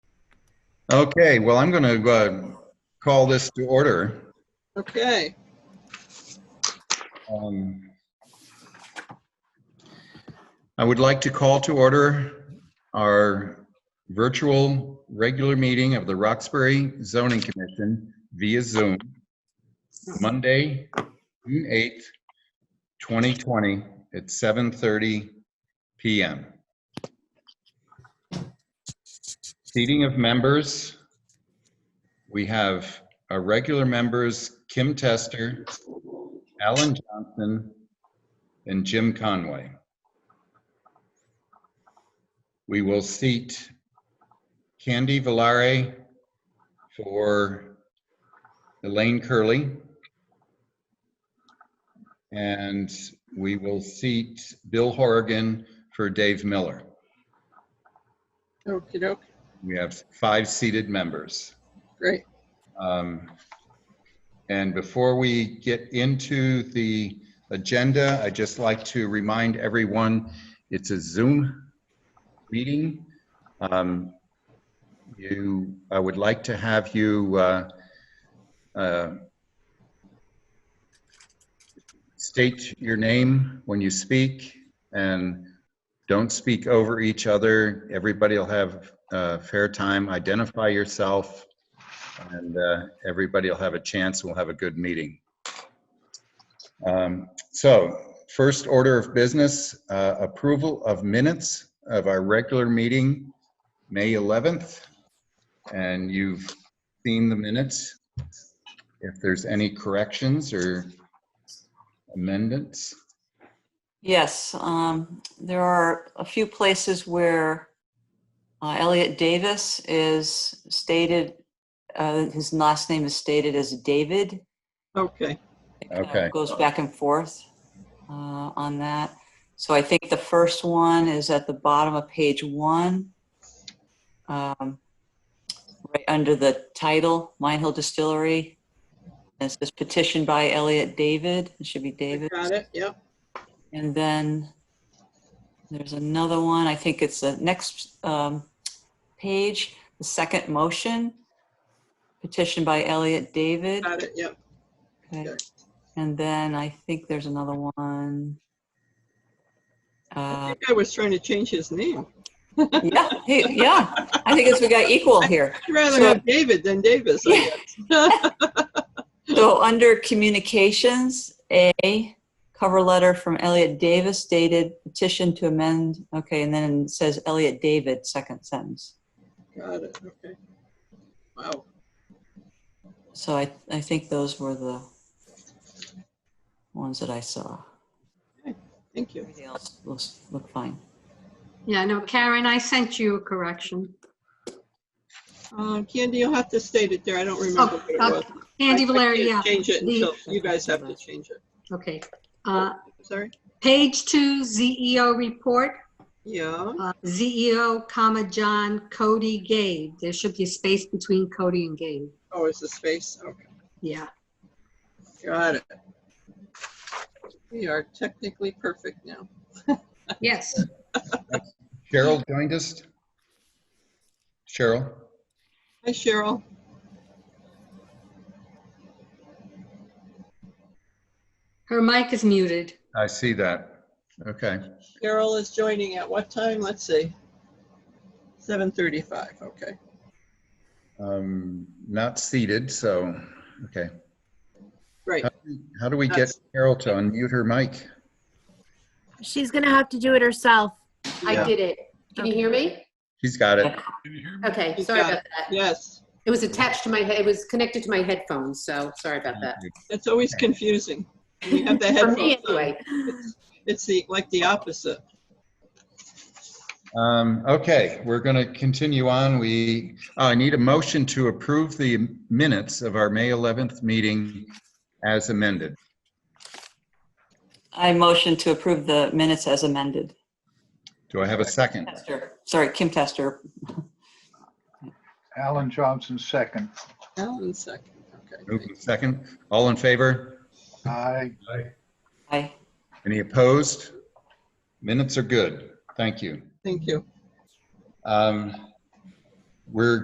Okay, well, I'm going to call this to order. Okay, Um, I would like to call to order our virtual regular meeting of the Roxbury Zoning Commission via Zoom, Monday, June 8th, 2020, at 7:30 PM. Seating of members. We have our regular members, Kim Tester, Alan Johnson, and Jim Conway. We will seat Candy Valare for Elaine Curley. And we will seat Bill Horrigan for Dave Miller. okey doke, We have five seated members. great. Um, And before we get into the agenda, I'd just like to remind everyone, it's a Zoom meeting. Um, You, I would like to have you uh, uh, state your name when you speak and don't speak over each other. Everybody will have uh, fair time. Identify yourself and uh, everybody will have a chance. We'll have a good meeting. Um, So first order of business, uh, approval of minutes of our regular meeting, May 11th. And you've seen the minutes. If there's any corrections or amendments, Yes, um, there are a few places where uh, Elliot Davis is stated, uh, his last name is stated as David. Okay, It kind of Okay. Goes back and forth uh, on that. So I think the first one is at the bottom of page one. um, Right under the title, Mine Hill Distillery. And It says petition by Elliot David. It should be I David. got it, yep. And then there's another one, I think it's the next um, page, the second motion, petition by Elliot David. Got it, yep. Okay. okay. And then I think there's another one. I Um, Uh, think I was trying to change his name. Yeah, hey, yeah, I think it's, we got equal here. I'd rather So- have David than Davis, I guess. So under communications, A, cover letter from Elliot Davis dated petition to amend, okay, and then it says Elliot David, second sentence. Got it, okay. Wow, So I, I think those were the ones that I saw. thank you. Everything else looks, looked fine. Yeah, no, Karen, I sent you a correction. Uh, Candy, you'll have to state it there, I don't remember what it Oh, was. Andy I- I Valeri, yeah, can't Change it The- until you guys have to change it. okay. Uh, Sorry? Page two, ZEO report, Yeah, uh, ZEO, comma, John Cody Gabe. There should be a space between Cody and Gabe. oh, it's the space, okay, Yeah, got it. We are technically perfect now. yes. Cheryl joined us. Cheryl, Hi Cheryl, Her mic is muted. I see that. Okay. Cheryl is joining at what time? Let's see. 7:35, okay. Um, Not seated, so, okay. Great. How do we get Carol to unmute her mic? She's gonna have to do it herself. Yeah. I did it. Can you hear me? She's got it. Okay, You sorry got about that. Yes, It was attached to my, head. it was connected to my headphones, so sorry about that. it's always confusing. You have the For me, headphones on. anyway. It's the, like the opposite. Um, okay, we're going to continue on. We, uh, I need a motion to approve the minutes of our May 11th meeting as amended. I motion to approve the minutes as amended. Do I have a second? Tester, sorry, Kim Tester. Alan Johnson, second. Alan second, okay. Move in Second, all in favor? Aye. Aye. Any opposed? Minutes are good. Thank you. Thank you. Um, We're